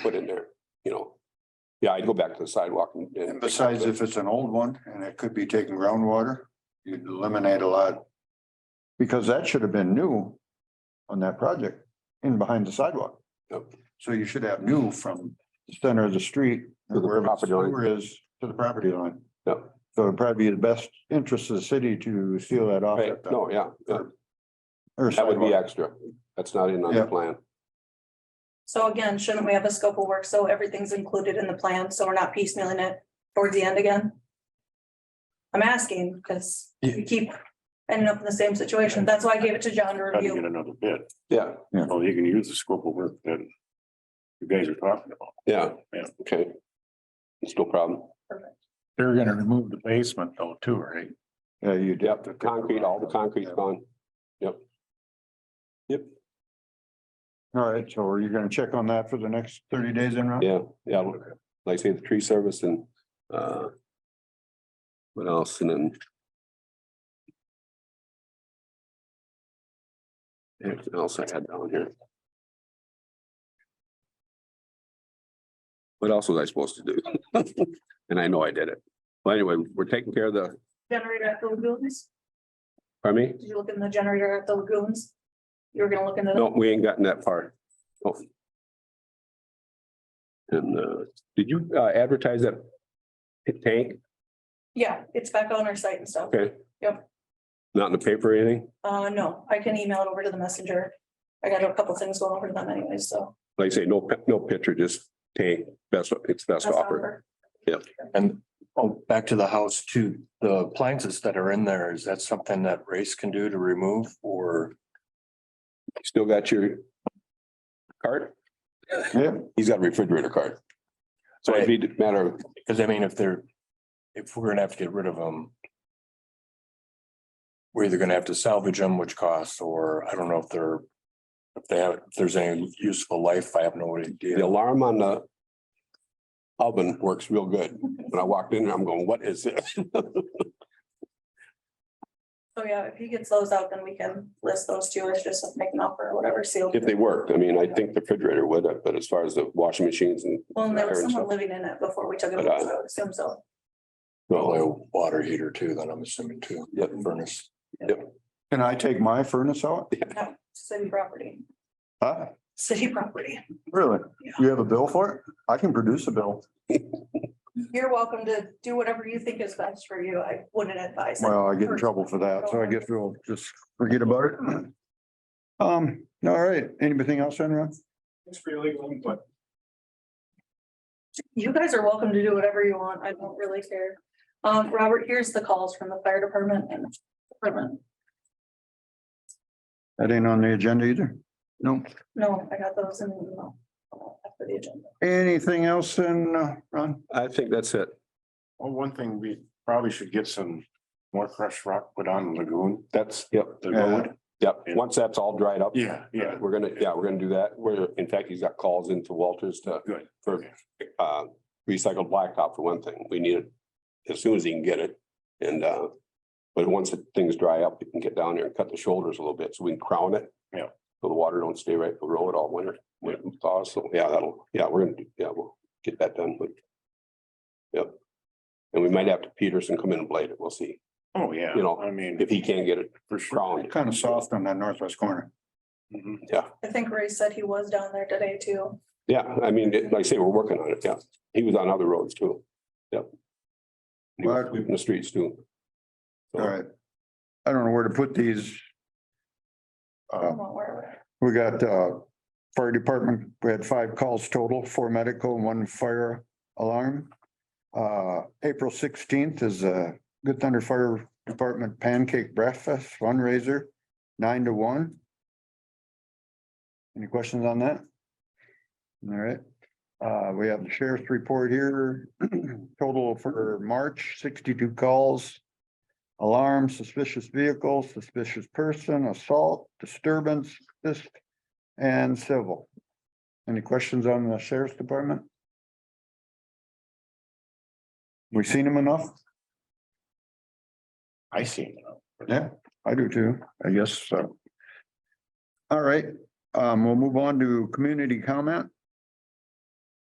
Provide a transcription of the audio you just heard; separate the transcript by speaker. Speaker 1: put in there, you know? Yeah, I'd go back to the sidewalk and.
Speaker 2: And besides, if it's an old one and it could be taking groundwater, you'd eliminate a lot. Because that should have been new on that project in behind the sidewalk.
Speaker 1: Yep.
Speaker 2: So you should have new from the center of the street,
Speaker 1: To the
Speaker 2: wherever the
Speaker 1: property line.
Speaker 2: sewer is, to the property line.
Speaker 1: Yep.
Speaker 2: So it'd probably be the best interest of the city to seal that off.
Speaker 1: Right, no, yeah, yeah,
Speaker 2: Or
Speaker 1: that would be
Speaker 2: sidewalk.
Speaker 1: extra. That's not in on the
Speaker 2: Yeah.
Speaker 1: plan.
Speaker 3: So again, shouldn't we have a scope of work? So everything's included in the plan, so we're not piecemealing it towards the end again? I'm asking because we keep ending up in the same situation. That's why I gave it to John to
Speaker 4: How do you get
Speaker 3: review.
Speaker 4: another bid?
Speaker 1: Yeah,
Speaker 4: Well, you can use the scope of work that you guys are talking about.
Speaker 1: yeah,
Speaker 4: Yeah.
Speaker 1: okay. It's no problem.
Speaker 4: They're gonna remove the basement though too, right?
Speaker 2: Yeah, you did.
Speaker 1: Yep, the concrete, all the concrete's gone.
Speaker 2: All right, so are you gonna check on that for the next thirty days in? Ron?
Speaker 1: Yeah, yeah, look, like I say, the tree service and, uh. What else? And then. Anything else I had down here? What else was I supposed to do? And I know I did it. Well, anyway, we're taking care of the,
Speaker 3: Generator at the lagoons?
Speaker 1: pardon me?
Speaker 3: Did you look in the generator at the lagoons? You were gonna look into
Speaker 1: No,
Speaker 3: the
Speaker 1: we ain't gotten that far. Oh. And, uh, did you uh, advertise that? Tank?
Speaker 3: Yeah, it's back on our site and stuff.
Speaker 1: Okay.
Speaker 3: Yep.
Speaker 1: Not in the paper or anything?
Speaker 3: Uh, no, I can email it over to the messenger. I got a couple things going over to them anyway, so.
Speaker 1: Like I say, no, pi- no picture, just tank, best, it's best
Speaker 3: that's
Speaker 1: offer.
Speaker 3: offer.
Speaker 5: And oh, back to the house too, the appliances that are in there, is that something that Race can do to remove or?
Speaker 1: Still got your cart?
Speaker 2: Yeah.
Speaker 1: He's got a refrigerator cart. So it'd be a matter of,
Speaker 5: Cause I mean, if they're, if we're gonna have to get rid of them. We're either gonna have to salvage them, which costs, or I don't know if they're. If they have, if there's any useful life, I have no
Speaker 1: the
Speaker 5: idea.
Speaker 1: alarm on the oven works real good. When I walked in, there, I'm going, what is this?
Speaker 3: So yeah, if he gets those out, then we can list those two as just make an offer or whatever sealed.
Speaker 1: If they worked, I mean, I think the refrigerator would, but as far as the washing machines and,
Speaker 3: Well, and there was
Speaker 1: Aaron,
Speaker 3: someone
Speaker 1: so-
Speaker 3: living in it before we took it,
Speaker 1: But,
Speaker 3: over,
Speaker 1: uh,
Speaker 3: so I would assume so.
Speaker 5: Probably a
Speaker 1: no,
Speaker 5: water heater too, then I'm assuming too,
Speaker 1: Yep.
Speaker 5: furnace.
Speaker 2: Can I take my furnace out?
Speaker 3: No, City property,
Speaker 2: Huh?
Speaker 3: city property.
Speaker 2: Really?
Speaker 3: Yeah.
Speaker 2: You have a bill for it? I can produce a bill.
Speaker 3: You're welcome to do whatever you think is best for you. I wouldn't advise. it.
Speaker 2: Well, I get in trouble for that, so I guess we'll just forget about it. Um, all right, anything else, Enron?
Speaker 4: It's really long, but.
Speaker 3: You guys are welcome to do whatever you want. I don't really care. Um, Robert, here's the calls from the fire department and department.
Speaker 2: That ain't on the agenda either. No,
Speaker 3: No, I got those in the email. After the agenda.
Speaker 2: anything else in, uh, Ron?
Speaker 1: I think that's it.
Speaker 4: Well, one thing, we probably should get some more crushed rock put on the lagoon,
Speaker 1: That's, yep,
Speaker 4: the road.
Speaker 1: yep. Once that's all dried up.
Speaker 4: Yeah, yeah.
Speaker 1: We're gonna, yeah, we're gonna do that. We're, in fact, he's got calls into Walters to.
Speaker 4: Good.
Speaker 1: For, uh, recycled blacktop for one thing. We need it as soon as he can get it. And, uh, but once the things dry up, we can get down there and cut the shoulders a little bit so we can crown it.
Speaker 4: Yeah.
Speaker 1: So the water don't stay right below it all winter. when it thaws. So, yeah, that'll, yeah, we're gonna, do- yeah, we'll get that done. but- Yep. And we might have to Peterson come in and blade it. We'll see
Speaker 4: Oh, yeah.
Speaker 1: You know,
Speaker 4: I mean,
Speaker 1: if he can get it
Speaker 4: for sure.
Speaker 1: crowned.
Speaker 2: Kind of soft on that northwest corner.
Speaker 4: Mhm.
Speaker 3: I think Ray said he was down there today too.
Speaker 1: Yeah, I mean, it- like I say, we're working on it, yeah. He was on other roads too. Yep. He was
Speaker 2: Mark.
Speaker 1: sweeping the streets too.
Speaker 2: All right. I don't know where to put these. Uh,
Speaker 3: From what we're-
Speaker 2: we got, uh, fire department, we had five calls total, four medical, and one fire alarm. Uh, April sixteenth is a Good Thunder Fire Department Pancake Breakfast fundraiser, nine to one. Any questions on that? All right, uh, we have the sheriff's report here, total for March, sixty-two calls. Alarm, suspicious vehicle, suspicious person, assault, disturbance, this, and civil. Any questions on the sheriff's department? We seen him enough?
Speaker 4: I see.
Speaker 2: Yeah, I do too, I guess so. All right, um, we'll move on to community comment.